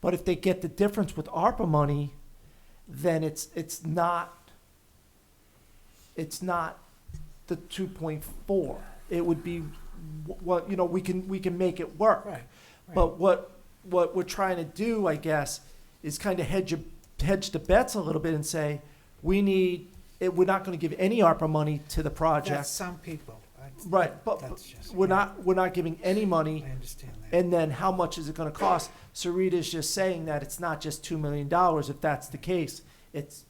But if they get the difference with ARPA money, then it's, it's not, it's not the two point four. It would be, wh- what, you know, we can, we can make it work. Right, But what, what we're trying to do, I guess, is kind of hedge, your- hedge the bets a little bit and say, we need, it, we're not gonna give any ARPA money to the That's project. some people. That's- Right, but that's just- we're not, we're not giving any money. I understand that. And then how much is it gonna cost? Sarita's just saying that it's not just two million dollars, if that's the case, it's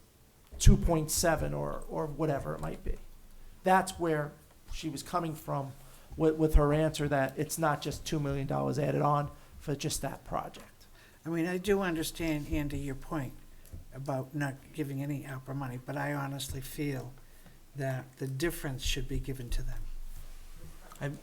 two point seven or, or whatever it might be. That's where she was coming from with, with her answer that it's not just two million dollars added on for just that project. I mean, I do understand, Andy, your point about not giving any ARPA money, but I honestly feel that the difference should be given to them. I'm-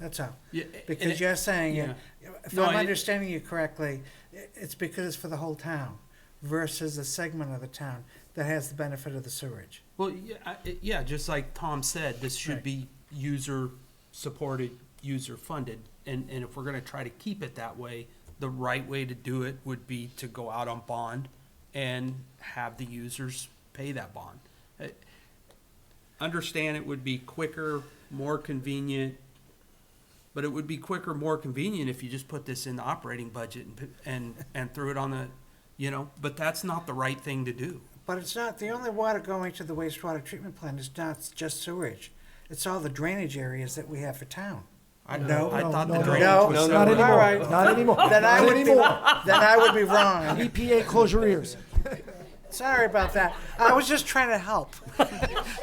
That's all. Yeah, and Because it- you're saying, it- if No, I'm I- understanding you correctly, i- it's because it's for the whole town versus a segment of the town that has the benefit of the sewerage. Well, yeah, I- it- yeah, just like Tom said, this Right. should be user-supported, user-funded. And, and if we're gonna try to keep it that way, the right way to do it would be to go out on bond and have the users pay that bond. Uh, Understand it would be quicker, more convenient, but it would be quicker, more convenient if you just put this in the operating budget and, p- and, and threw it on the, you know, but that's not the right thing to do. But it's not, the only water going to the wastewater treatment plant is not just sewerage. It's all the drainage areas that we have for town. I No, I thought no, the no, drainage was no, Not no, separate. no. All right. anymore, not anymore, Then I not would be, then anymore. I would be wrong. EPA, E close your ears. Sorry about that. I was just trying to help.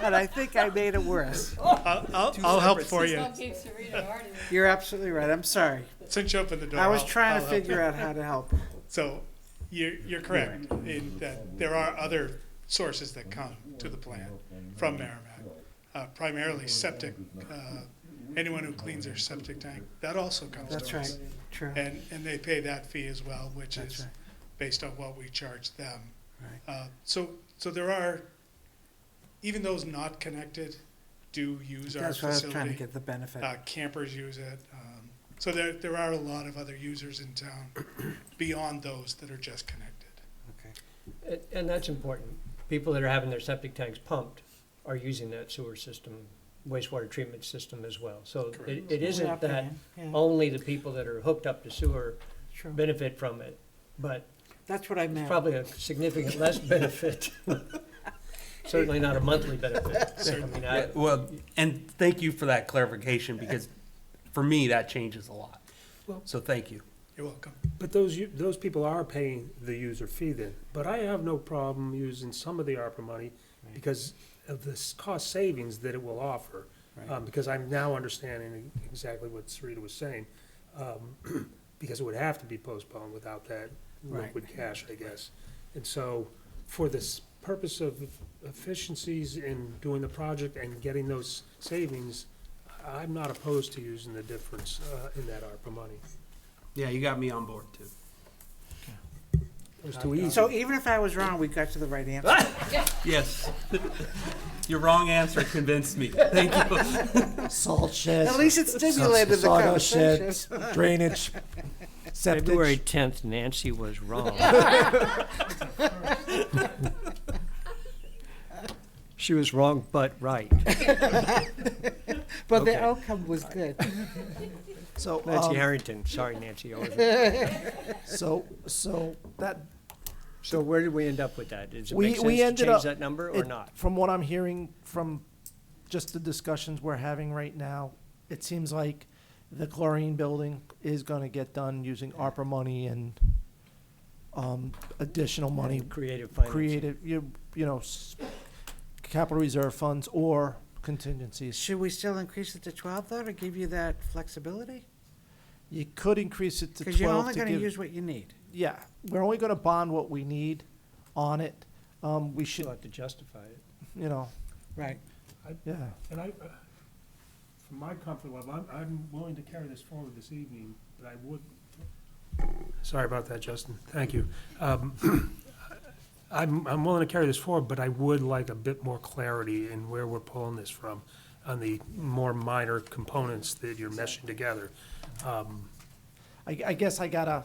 But I think I made it worse. I'll, I'll, I'll help for you. Tom gave Serena an argument. You're absolutely right. I'm sorry. Since you opened the door, I was I'll- trying I'll to help. figure out how to help. So you're, you're correct in that there are other sources that come to the plant from Merrimack, uh, primarily septic. Uh, anyone who cleans their septic tank, that also comes That's to right. us. True. And, and they pay that fee as well, which That's is right. based on what we charge them. Right. Uh, so, so there are, even those not connected do use our That's why I was facility. trying to get the benefit. Uh, campers use it. Um, so there, there are a lot of other users in town beyond those that are just connected. Okay. And- And that's important. People that are having their septic tanks pumped are using that sewer system, wastewater treatment system as well. So it, Correct. it Yeah, isn't that yeah, only the people that are hooked up to sewer true. benefit from it, but That's what I it's meant. probably a significant less benefit. Certainly not a monthly benefit. I mean, I- Yeah, Well, and thank you for that clarification, because for me, that changes a lot. Well- So thank you. You're welcome. But those, u- those people are paying the user fee then, but I have no problem using some of the ARPA money because of this cost savings that it will offer. Um, because I'm now understanding e, exactly what Sarita was saying, um, because it would have to be postponed without that Right. liquid cash, I guess. And so, for this purpose of efficiencies in doing the project and getting those savings, I'm not opposed to using the difference, uh, in that ARPA money. Yeah, you got me on board too. It was too easy. So even if I was wrong, we got to the right answer. Yes. Your wrong answer convinced me. Thank you. Salt sheds. At least it stimulated the sawdust conversation. sheds, Drainage, February 10th, septic, Nancy was wrong. she was wrong, but right. But the Okay. outcome was good. so. Nancy um, Harrington. Sorry, Nancy. I wasn't- So, so that, So where did we end up with that? Does it We- make sense we to ended change up- that number or it- not? From what I'm hearing from just the discussions we're having right now, it seems like the chlorine building is gonna get done using ARPA money and um, additional money Creative finance. created, you, you know, s- capital reserve funds or contingencies. Should we still increase it to twelve though, to give you that flexibility? You could increase it to Because you're twelve only to gonna give, use what you need. yeah, we're only gonna bond what we need on it. Um, we You'll should, have to justify it. you know, Right. yeah. And I, uh, for my comfort level, I'm, I'm willing to carry this forward this evening, but I would. Sorry about that, Justin. Thank you. Um, I'm, I'm willing to carry this forward, but I would like a bit more clarity in where we're pulling this from on the more minor components that you're meshing together. Um, I, I guess I gotta,